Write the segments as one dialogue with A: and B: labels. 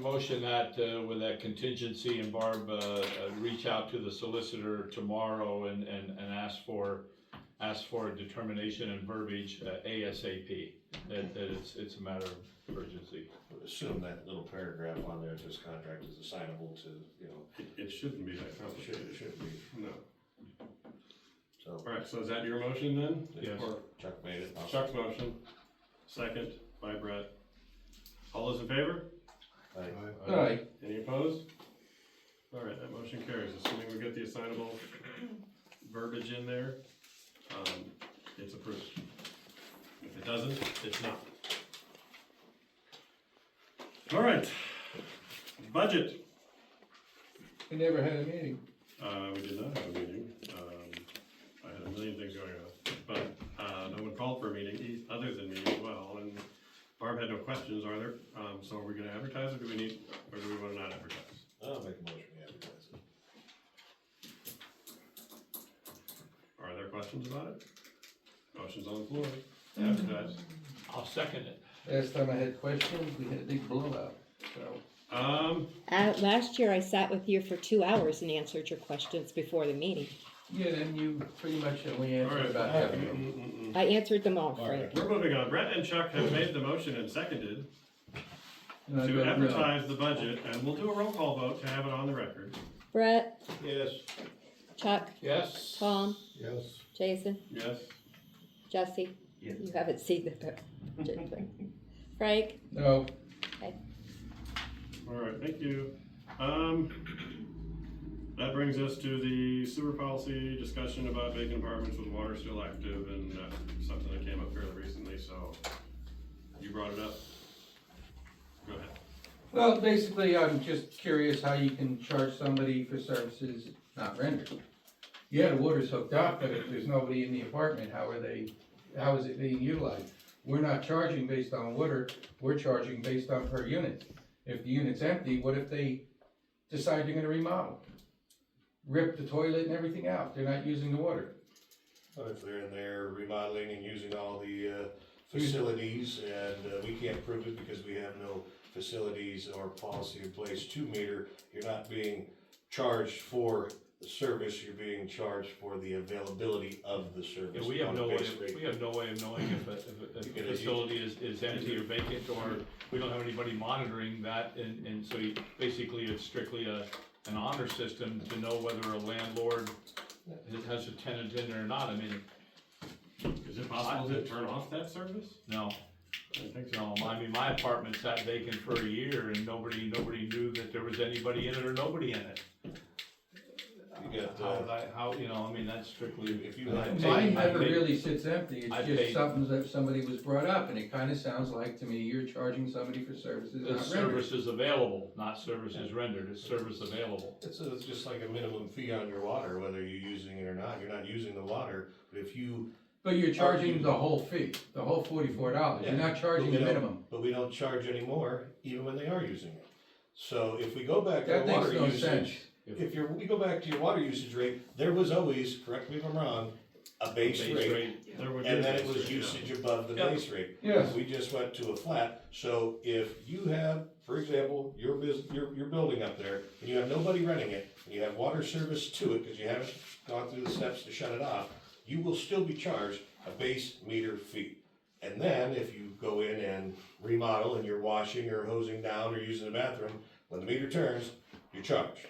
A: motion that, uh, with that contingency and Barb, uh, uh, reach out to the solicitor tomorrow and, and, and ask for, ask for a determination and verbiage uh, ASAP, that, that it's, it's a matter of urgency.
B: would Assume that little paragraph on there, this contract is assignable to, you know,
C: It, it shouldn't be that
B: it should, it
C: complicated,
B: should be,
C: no.
B: so.
C: All right, so is that your motion then?
A: Yes.
C: Or
B: Chuck made it. I'll-
C: Chuck's motion, second by Brett. All those in favor?
B: I-
D: Aye.
C: Any opposed? All right, that motion carries, assuming we get the assignable verbiage in there, um, it's approved. If it doesn't, it's not. All right, budget,
D: We never had a meeting.
C: uh, we did not have a meeting, um, I had a million things going on, but, uh, no one called for a meeting, e- other than me as well, and Barb had no questions, are there, um, so are we gonna advertise or do we need, or do we wanna not advertise?
B: I'll make a motion, we advertise it.
C: Are there questions about it? Motion's on the floor, advertised.
A: I'll second it.
D: Last time I had questions, we had a big blowout, so.
C: Um,
E: Uh, last year I sat with you for two hours and answered your questions before the meeting.
D: Yeah, then you pretty much only answered
C: alright,
D: about half of
C: mm,
D: them.
C: mm, mm, mm.
E: I answered them all, Frank.
C: we're moving on, Brett and Chuck have made the motion and seconded
D: And I
C: to
D: vote no.
C: advertise the budget, and we'll do a roll call vote to have it on the record.
E: Brett,
A: Yes.
E: Chuck,
A: Yes.
E: Tom,
B: Yes.
E: Jason,
C: Yes?
E: Jesse. You haven't seen the budget thing. Frank,
D: No,
C: Alright, thank you. Um, that brings us to the sewer policy discussion about vacant apartments with water still active, and that's something that came up fairly recently, so you brought it up. Go ahead.
D: well, basically, I'm just curious how you can charge somebody for services not rendered. Yeah, the water's hooked up, but if there's nobody in the apartment, how are they, how is it being utilized? We're not charging based on water, we're charging based on per unit. If the unit's empty, what if they decide they're gonna remodel? Rip the toilet and everything out, they're not using the water.
B: But if they're in there remodeling and using all the, uh, facilities, and, uh, we can't prove it because we have no facilities or policy in place to meter, you're not being charged for the service, you're being charged for the availability of the
A: Yeah,
B: service.
A: we have
B: on a
A: no way,
B: base rate.
A: we have no way of knowing if a, if a-
B: You
A: if a
B: can-
A: facility is, is empty or vacant, or we don't have anybody monitoring that, and, and so you, basically, it's strictly a, an honor system to know whether a landlord has a tenant in there or not, I mean,
C: Is it possible to turn off that service?
A: no,
C: I don't think so.
A: no, I mean, my apartment sat vacant for a year, and nobody, nobody knew that there was anybody in it or nobody in it.
B: You got,
A: How,
B: uh,
A: that- how, you know, I mean, that's strictly,
B: if you had
D: Mine
B: taken,
A: I
D: never
A: paid-
D: really sits empty,
A: I
D: it's
A: paid-
D: just something that somebody was brought up, and it kinda sounds like to me, you're charging somebody for services
A: it's
D: not rendered.
A: services available, not services rendered, it's service available.
B: it's, it's just like a minimum fee on your water, whether you're using it or not, you're not using the water, but if you,
D: But you're charging the whole fee, the whole forty-four dollars, you're not charging the
B: Yeah.
D: minimum.
B: but we don't charge anymore, even when they are using it. So if we go back to
D: That makes
B: water
D: no sense.
B: usage, if you're, we go back to your water usage rate, there was always, correct me if I'm wrong, a base rate,
C: There would be a
B: and then it
C: base
B: was
C: rate, yeah.
B: usage above the
A: Yeah.
B: base rate.
D: Yes.
B: We just went to a flat, so if you have, for example, your bus your, your building up there, and you have nobody renting it, and you have water service to it, cause you haven't gone through the steps to shut it off, you will still be charged a base meter fee. And then if you go in and remodel and you're washing or hosing down or using the bathroom, when the meter turns, you're charged.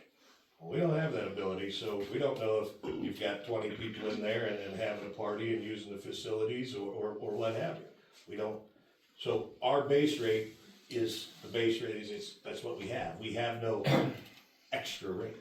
B: Well, We don't have that ability, so we don't know if you've got twenty people in there and, and having a party and using the facilities or, or, or what have you. We don't, so our base rate is, the base rate is, it's, that's what we have, we have no extra rate.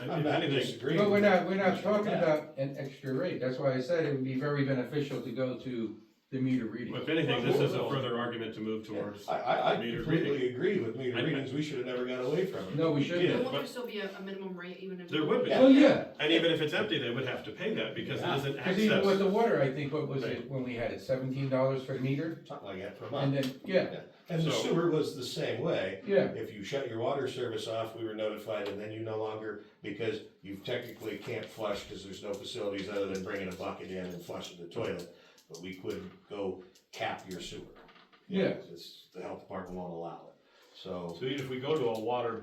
C: And
B: I'm
C: If
B: not
C: anything,
B: disagreeing.
D: But we're
B: with-
D: not, we're not
B: with
D: talking
B: that.
D: about an extra rate, that's why I said it would be very beneficial to go to the meter reading.
C: if anything, this is a further argument to move towards.
B: I, I, I
C: Meter
B: completely
C: reading.
B: agree with
C: I-
B: meter
C: I-
B: readings, we should have never got away from it.
D: No, we
C: Yeah.
D: shouldn't.
F: Won't there still be a, a minimum rate even if?
C: There would be.
D: Well, yeah,
C: And even if it's empty, they would have to pay that because it isn't
D: cause even with
C: access.
D: the water, I think, what was it, when we had it, seventeen dollars for the meter?
B: Something like that for a
D: And
B: month.
D: then, yeah,
B: And the
C: So-
B: sewer was the same way.
D: yeah.
B: If you shut your water service off, we were notified, and then you no longer, because you technically can't flush, because there's no facilities other than bringing a bucket in and flushing the toilet. But we could go cap your sewer. You know,
D: Yeah.
B: it's- The health department won't allow it. So.
A: So even if we go to a water